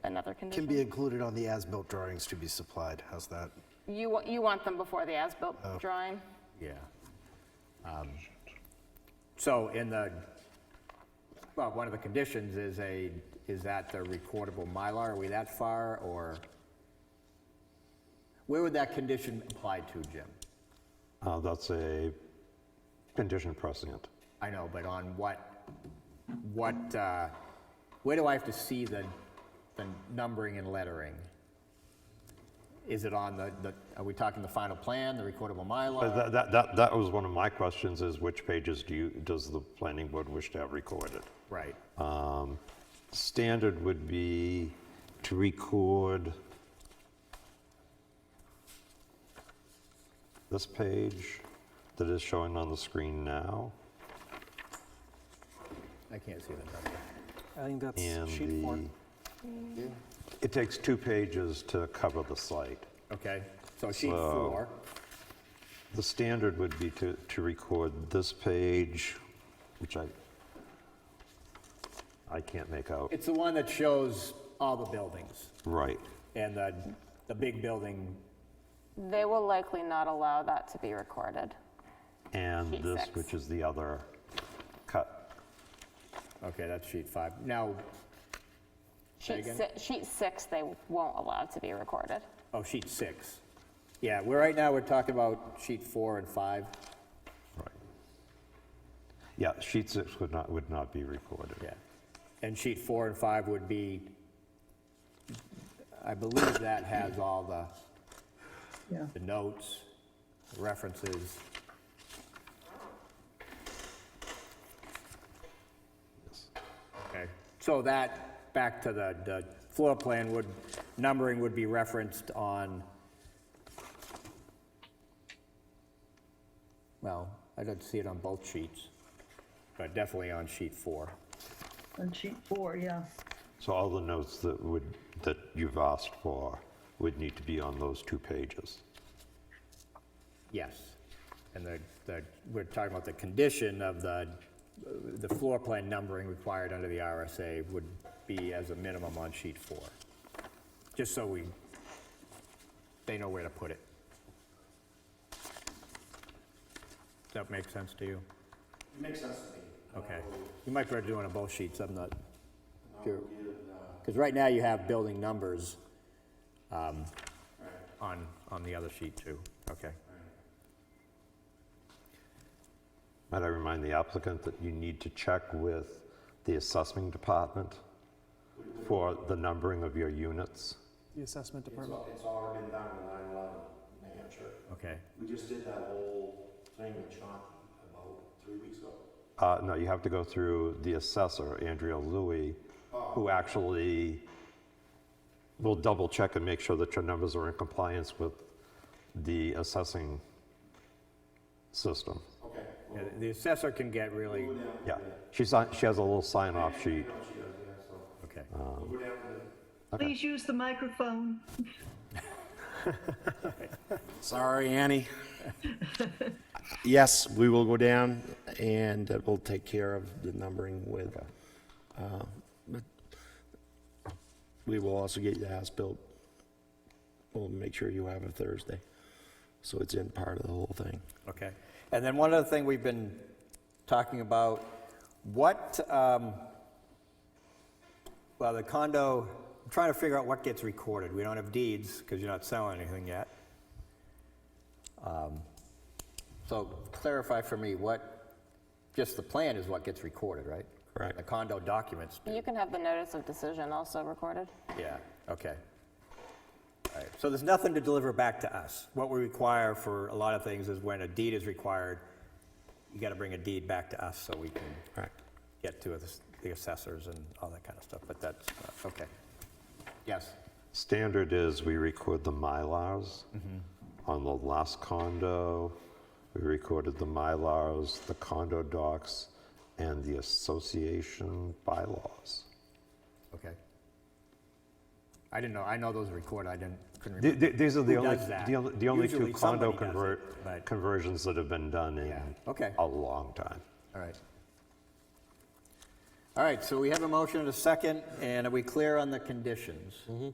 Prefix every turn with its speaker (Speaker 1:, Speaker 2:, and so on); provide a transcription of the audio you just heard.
Speaker 1: or
Speaker 2: Can be
Speaker 1: condition?
Speaker 2: included on the as-built drawings to be supplied. How's that?
Speaker 1: You, wa- you want them before the
Speaker 2: Oh.
Speaker 1: as-built drawing?
Speaker 3: Yeah. Um, So in the, well, one of the conditions is a, is that the recordable Mylar, are we that far, or? Where would that condition apply to, Jim?
Speaker 4: Uh, That's a condition precedent.
Speaker 3: I know, but on what, what, uh, where do I have to see the, the numbering and lettering? Is it on the, the? are we talking the final plan, the recordable
Speaker 4: But
Speaker 3: Mylar?
Speaker 4: Uh, That, that, that that was one of my questions, is which pages do you, does the planning board wish to have recorded?
Speaker 3: Right,
Speaker 4: Um, Standard would be to record this page that is showing on the screen now,
Speaker 3: I can't see the number.
Speaker 5: I think that's
Speaker 4: and
Speaker 5: sheet four.
Speaker 4: the, it takes two pages to cover the site.
Speaker 3: Okay, so sheet
Speaker 4: So-
Speaker 3: four,
Speaker 4: The standard would be to, to record this page, which I, I can't make out.
Speaker 3: it's the one that shows all the buildings,
Speaker 4: Right.
Speaker 3: and the, the big building,
Speaker 1: They will likely not allow that to be recorded.
Speaker 4: And
Speaker 1: Sheet
Speaker 4: this,
Speaker 1: six.
Speaker 4: which is the other cut.
Speaker 3: okay, that's sheet five. Now,
Speaker 1: Sheet
Speaker 3: again?
Speaker 1: si- Sheet six, they won't allow to be recorded.
Speaker 3: oh, sheet six. Yeah, we're, right now, we're talking about sheet four and five,
Speaker 4: Right. Yeah, sheet six would not, would not be recorded.
Speaker 3: yeah. And sheet four and five would be, I believe that has all the,
Speaker 6: Yeah.
Speaker 3: the notes, references. Okay, so that, back to the, the floor plan would, numbering would be referenced on, well, I don't see it on both sheets, but definitely on sheet four.
Speaker 6: On sheet four, yeah.
Speaker 4: So all the notes that would, that you've asked for would need to be on those two pages.
Speaker 3: Yes. And the, the, we're talking about the condition of the, the floor plan numbering required under the RSA would be as a minimum on sheet four. Just so we, they know where to put it. Does that make sense to you? It makes sense to me. Okay. You might better do it on both sheets, I'm not sure. Because right now you have building numbers um, on, on the other sheet too. Okay.
Speaker 4: Might I remind the applicant that you need to check with the assessing department for the numbering of your units?
Speaker 5: The assessment department.
Speaker 7: It's already been done in nine eleven, New Hampshire.
Speaker 3: Okay.
Speaker 7: We just did that whole thing with Chauncey about three weeks ago.
Speaker 4: Uh, no, you have to go through the assessor, Andrea Louis, who actually will double check and make sure that your numbers are in compliance with the assessing system.
Speaker 7: Okay.
Speaker 3: Yeah, the- The assessor can get really,
Speaker 4: Yeah, she's on, she has a little sign off sheet.
Speaker 3: okay.
Speaker 6: Please use the microphone.
Speaker 7: Sorry, Annie. Yes, we will go down and uh, we'll take care of the numbering with, uh, but we will also get the house built. We'll make sure you have it Thursday, so it's in part of the whole thing.
Speaker 3: Okay. And then one other thing we've been talking about, what, um, well, the condo, I'm trying to figure out what gets recorded. We don't have deeds because you're not selling anything yet. Um, So clarify for me what, just the plan is what gets recorded, right?
Speaker 7: Correct.
Speaker 3: The condo documents do.
Speaker 1: You can have the notice of decision also recorded.
Speaker 3: Yeah, okay. All right, so there's nothing to deliver back to us. What we require for a lot of things is when a deed is required, you gotta bring a deed back to us so we can
Speaker 7: Correct.
Speaker 3: get to the assessors and all that kind of stuff, but that's, uh, okay. Yes,
Speaker 4: Standard is we record the Mylars. On the last condo, we recorded the Mylars, the condo docs, and the association bylaws.
Speaker 3: okay. I didn't know, I know those are recorded, I didn't, couldn't
Speaker 4: Th-
Speaker 3: remember.
Speaker 4: th- These are the
Speaker 3: Who
Speaker 4: only,
Speaker 3: does that?
Speaker 4: the only- the only two
Speaker 3: Usually
Speaker 4: condo
Speaker 3: somebody does
Speaker 4: convert-
Speaker 3: it, but-
Speaker 4: conversions that have been done in
Speaker 3: Yeah, okay.
Speaker 4: a long time.
Speaker 3: All right. All right, so we have a motion and a second, and are we clear on the conditions?